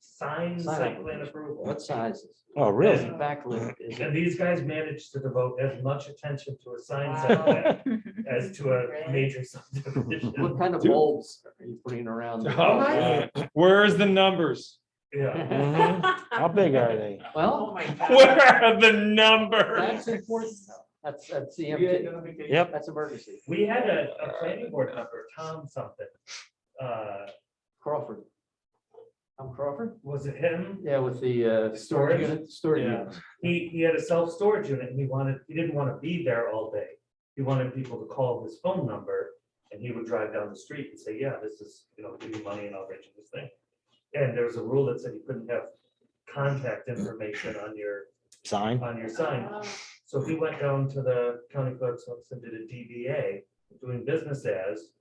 sign the Sign site plan application. approval. What sizes? Oh, really? What Backlit is And it? these guys managed to devote as much attention to a sign Wow. site plan as to a major subdivision. What kind of Dude. bulbs are you putting around? Oh, there? Where's the numbers? Yeah, Mhm. How big are they? Oh, Well, my God. Where are the numbers? that's important. That's, that's the empty. Yep. That's emergency. we had a, a planning board member, Tom something. Uh, Crawford. I'm Crawford? was it him? Yeah, with the uh, storage Storage? unit, storage Yeah. unit. He, he had a self-storage unit and he wanted, he didn't want to be there all day. He wanted people to call his phone number and he would drive down the street and say, yeah, this is, you know, give me money and I'll rent you this thing. And there was a rule that said you couldn't have contact information on your, Sign? on your sign. Um, So he went down to the county clerk's office and did a DBA, doing business as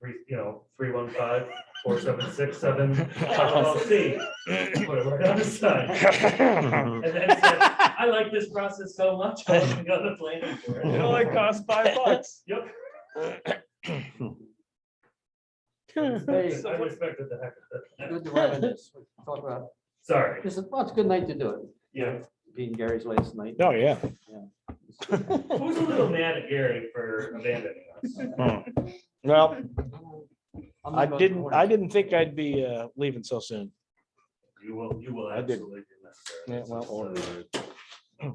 three, you know, three one five, four seven six seven LLC. Put it right on the sign. Oh, And then said, I like this process so much, I want to go to planning board. It Oh only costs five bucks. Yep, I Hey, respected the heck of it. good to reminisce. We Talk about, Sorry, this is, well, it's a good night to do it. yeah. Being Gary's latest night. Oh, yeah. It's good. Who's a little mad at Gary for abandoning us? Well, I'm not I going to didn't, warn I you. didn't think I'd be uh, leaving so soon. You will, you will I did. absolutely be Yeah, missed. well, or- So, uh,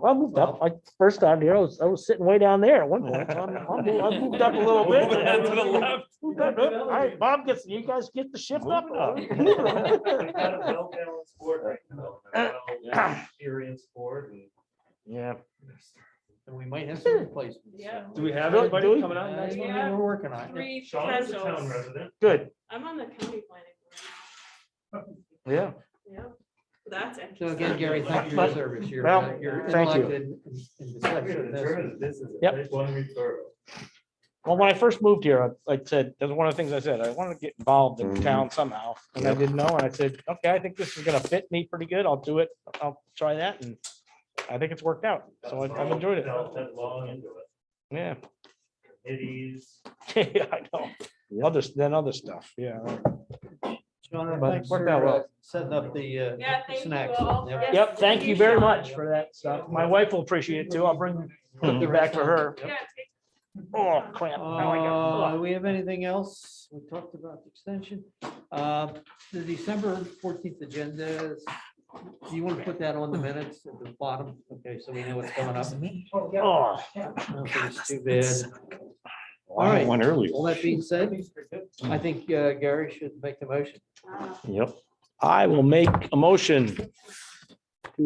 I moved up, I, first time here, I was, I was sitting way down there at one point. so I'm- I'm mo- I moved up a little bit. Moving it to the left. Moved up, up. All right, Bob gets, you guys get the shift up. We've got a well-balanced board right now, and a well-experienced board and. Yeah. And we might have some replacements. Yeah. so- Do we have Do- do anybody we- coming out Uh, next yeah. month? yeah, We're working on it. Three Sean is a town casuals. resident. Good, I'm on the county planning board. yeah. Yeah, that's interesting. So again, Gary, thank you for your service. You're, Well, uh, you're thank you. elected in in the section of this. This is. Yep. One week thorough. Well, when I first moved here, I- I said, that's one of the things I said, I want to get involved in town somehow. And I didn't know, and I said, okay, I think this is gonna fit me pretty good. I'll do it. I'll try that. And I think it's worked out. So I- I've enjoyed it. Felt that long into it. Yeah. Committees. Yeah, I know. Other, than other stuff, yeah. Sean, But thanks worked for out well. uh, setting up the uh, Yeah, thank you snacks. all. Yep. Yep, thank you very much for that stuff. My wife will appreciate it too. I'll bring Hmm. it back for her. Yeah, take- Oh, crap. Now I Uh, got- we have anything else? We talked about the extension. Uh, The December fourteenth agenda, is- do you want to put that on the minutes at the bottom? Okay, so we know what's coming up. Oh. I don't think it's Too bad. I All had right, One earlier. all that being said, I think uh, Gary should make the motion. uh, Yep. I will make a motion to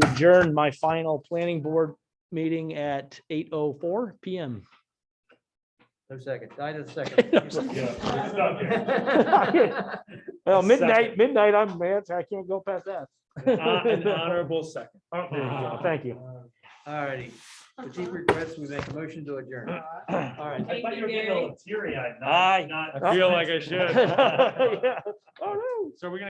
adjourn my final planning board meeting at eight oh four PM. No second, I did a second. Yeah, it's not there. Well, midnight, midnight, I'm mad. I can't go past that. Uh, An honorable second. There you go. uh, Thank you. All righty, for deep regrets, we make a motion to adjourn. All right. I thought you were getting a little teary eyed. Aye. I feel like I should. Yeah. Oh, no. So we're gonna.